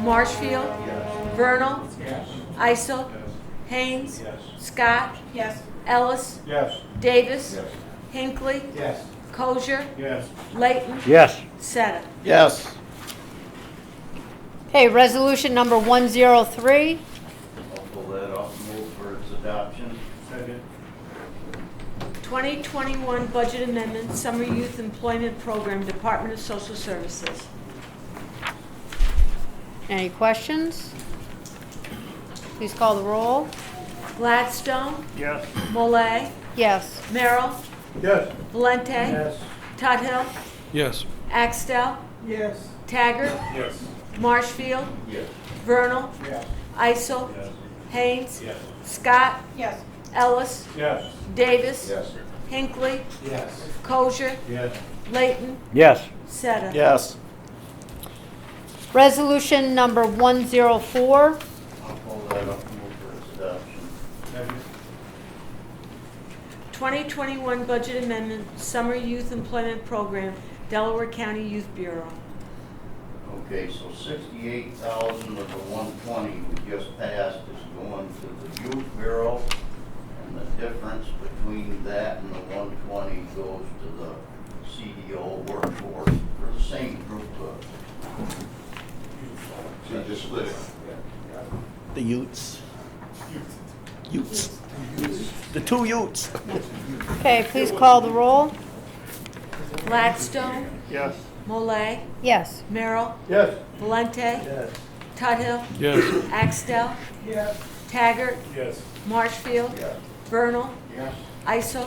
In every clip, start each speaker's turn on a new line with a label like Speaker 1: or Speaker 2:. Speaker 1: Marshfield,
Speaker 2: Yes.
Speaker 1: Vernal,
Speaker 2: Yes.
Speaker 1: Isel,
Speaker 2: Yes.
Speaker 1: Haynes,
Speaker 2: Yes.
Speaker 1: Scott,
Speaker 3: Yes.
Speaker 1: Ellis,
Speaker 2: Yes.
Speaker 1: Davis,
Speaker 2: Yes.
Speaker 1: Hinckley,
Speaker 2: Yes.
Speaker 1: Kosher,
Speaker 2: Yes.
Speaker 1: Layton,
Speaker 4: Yes.
Speaker 1: Seta.
Speaker 2: Yes.
Speaker 5: Okay, resolution number 103.
Speaker 2: I'll pull that off and move for its adoption. Second.
Speaker 1: 2021 Budget Amendment, Summer Youth Employment Program, Department of Social Services.
Speaker 5: Any questions? Please call the roll.
Speaker 1: Gladstone,
Speaker 4: Yes.
Speaker 1: Molay,
Speaker 5: Yes.
Speaker 1: Merrill,
Speaker 2: Yes.
Speaker 1: Valente,
Speaker 2: Yes.
Speaker 1: Tuthill,
Speaker 4: Yes.
Speaker 1: Axtell,
Speaker 2: Yes.
Speaker 1: Taggart,
Speaker 2: Yes.
Speaker 1: Marshfield,
Speaker 2: Yes.
Speaker 1: Vernal,
Speaker 2: Yes.
Speaker 1: Isel,
Speaker 2: Yes.
Speaker 1: Haynes,
Speaker 2: Yes.
Speaker 1: Scott,
Speaker 3: Yes.
Speaker 1: Ellis,
Speaker 2: Yes.
Speaker 1: Davis,
Speaker 2: Yes.
Speaker 1: Hinckley,
Speaker 2: Yes.
Speaker 1: Kosher,
Speaker 2: Yes.
Speaker 1: Layton,
Speaker 4: Yes.
Speaker 1: Seta.
Speaker 2: Yes.
Speaker 5: Resolution number 104.
Speaker 2: I'll pull that off and move for its adoption. Second.
Speaker 1: 2021 Budget Amendment, Summer Youth Employment Program, Delaware County Youth Bureau.
Speaker 2: Okay, so sixty-eight thousand of the one twenty we just passed is going to the youth bureau. And the difference between that and the one twenty goes to the CDO workforce for the same group of. So you just split it?
Speaker 6: The Utes. Utes. The two Utes.
Speaker 5: Okay, please call the roll.
Speaker 1: Gladstone,
Speaker 2: Yes.
Speaker 1: Molay,
Speaker 5: Yes.
Speaker 1: Merrill,
Speaker 2: Yes.
Speaker 1: Valente,
Speaker 2: Yes.
Speaker 1: Tuthill,
Speaker 4: Yes.
Speaker 1: Axtell,
Speaker 2: Yes.
Speaker 1: Taggart,
Speaker 2: Yes.
Speaker 1: Marshfield,
Speaker 2: Yes.
Speaker 1: Vernal,
Speaker 2: Yes.
Speaker 1: Isel,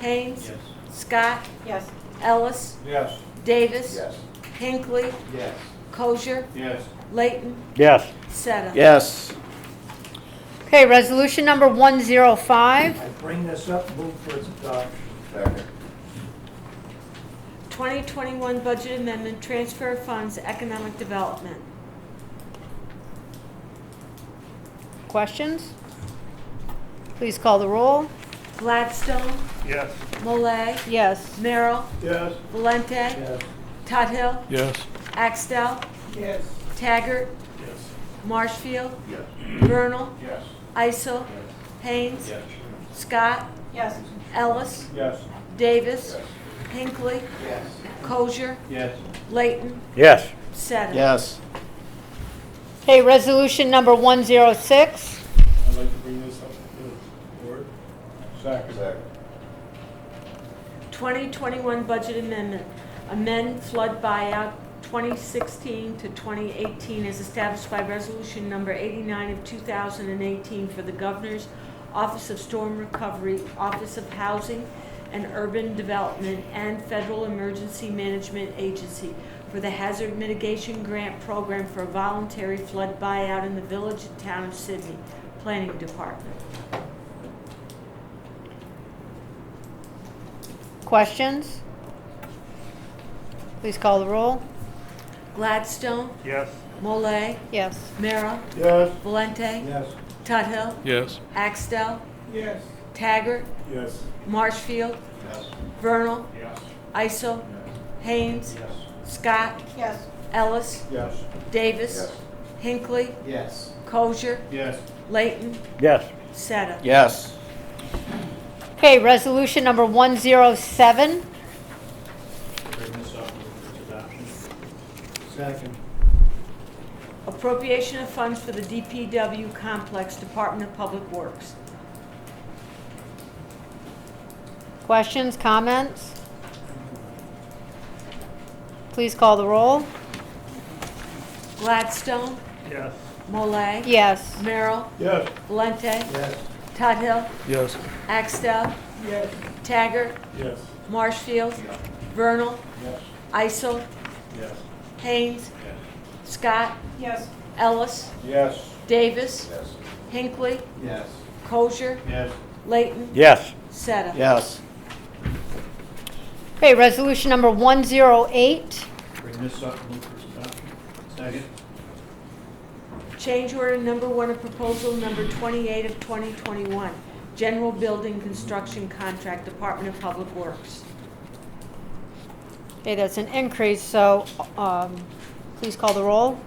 Speaker 1: Haynes, Scott,
Speaker 3: Yes.
Speaker 1: Ellis,
Speaker 2: Yes.
Speaker 1: Davis,
Speaker 2: Yes.
Speaker 1: Hinckley,
Speaker 2: Yes.
Speaker 1: Kosher,
Speaker 2: Yes.
Speaker 1: Layton,
Speaker 4: Yes.
Speaker 1: Seta.
Speaker 6: Yes.
Speaker 5: Okay, resolution number 105.
Speaker 2: I bring this up, move for its adoption. Second.
Speaker 1: 2021 Budget Amendment, Transfer of Funds, Economic Development.
Speaker 5: Questions? Please call the roll.
Speaker 1: Gladstone,
Speaker 2: Yes.
Speaker 1: Molay,
Speaker 5: Yes.
Speaker 1: Merrill,
Speaker 2: Yes.
Speaker 1: Valente,
Speaker 2: Yes.
Speaker 1: Tuthill,
Speaker 4: Yes.
Speaker 1: Axtell,
Speaker 2: Yes.
Speaker 1: Taggart,
Speaker 2: Yes.
Speaker 1: Marshfield,
Speaker 2: Yes.
Speaker 1: Vernal,
Speaker 2: Yes.
Speaker 1: Isel, Haynes, Scott,
Speaker 3: Yes.
Speaker 1: Ellis,
Speaker 2: Yes.
Speaker 1: Davis, Hinckley,
Speaker 2: Yes.
Speaker 1: Kosher,
Speaker 2: Yes.
Speaker 1: Layton,
Speaker 4: Yes.
Speaker 1: Seta.
Speaker 6: Yes.
Speaker 5: Okay, resolution number 106.
Speaker 2: I'd like to bring this up to the board. Second. Second.
Speaker 1: 2021 Budget Amendment, amend flood buyout 2016 to 2018 as established by Resolution Number 89 of 2018 for the Governor's Office of Storm Recovery, Office of Housing and Urban Development, and Federal Emergency Management Agency for the Hazard Mitigation Grant Program for a voluntary flood buyout in the village and town of Sydney, Planning Department.
Speaker 5: Questions? Please call the roll.
Speaker 1: Gladstone,
Speaker 2: Yes.
Speaker 1: Molay,
Speaker 5: Yes.
Speaker 1: Merrill,
Speaker 2: Yes.
Speaker 1: Valente.
Speaker 2: Yes.
Speaker 1: Tuthill,
Speaker 4: Yes.
Speaker 1: Axtell,
Speaker 2: Yes.
Speaker 1: Taggart,
Speaker 2: Yes.
Speaker 1: Marshfield,
Speaker 2: Yes.
Speaker 1: Vernal,
Speaker 2: Yes.
Speaker 1: Isel, Haynes,
Speaker 2: Yes.
Speaker 1: Scott,
Speaker 3: Yes.
Speaker 1: Ellis,
Speaker 2: Yes.
Speaker 1: Davis, Hinckley,
Speaker 2: Yes.
Speaker 1: Kosher,
Speaker 2: Yes.
Speaker 1: Layton,
Speaker 4: Yes.
Speaker 1: Seta.
Speaker 6: Yes.
Speaker 5: Okay, resolution number 107.
Speaker 2: Bring this up for its adoption. Second.
Speaker 1: Appropriation of funds for the DPW complex, Department of Public Works.
Speaker 5: Questions, comments? Please call the roll.
Speaker 1: Gladstone,
Speaker 2: Yes.
Speaker 1: Molay,
Speaker 5: Yes.
Speaker 1: Merrill,
Speaker 2: Yes.
Speaker 1: Valente,
Speaker 2: Yes.
Speaker 1: Tuthill,
Speaker 4: Yes.
Speaker 1: Axtell,
Speaker 2: Yes.
Speaker 1: Taggart,
Speaker 2: Yes.
Speaker 1: Marshfield,
Speaker 2: Yeah.
Speaker 1: Vernal,
Speaker 2: Yes.
Speaker 1: Isel,
Speaker 2: Yes.
Speaker 1: Haynes, Scott,
Speaker 3: Yes.
Speaker 1: Ellis,
Speaker 2: Yes.
Speaker 1: Davis,
Speaker 2: Yes.
Speaker 1: Hinckley,
Speaker 2: Yes.
Speaker 1: Kosher,
Speaker 2: Yes.
Speaker 1: Layton,
Speaker 4: Yes.
Speaker 1: Seta.
Speaker 6: Yes.
Speaker 5: Okay, resolution number 108.
Speaker 2: Bring this up and move for its adoption. Second.
Speaker 1: Change order number one of proposal number 28 of 2021, general building construction contract, Department of Public Works.
Speaker 5: Okay, that's an increase, so um, please call the roll.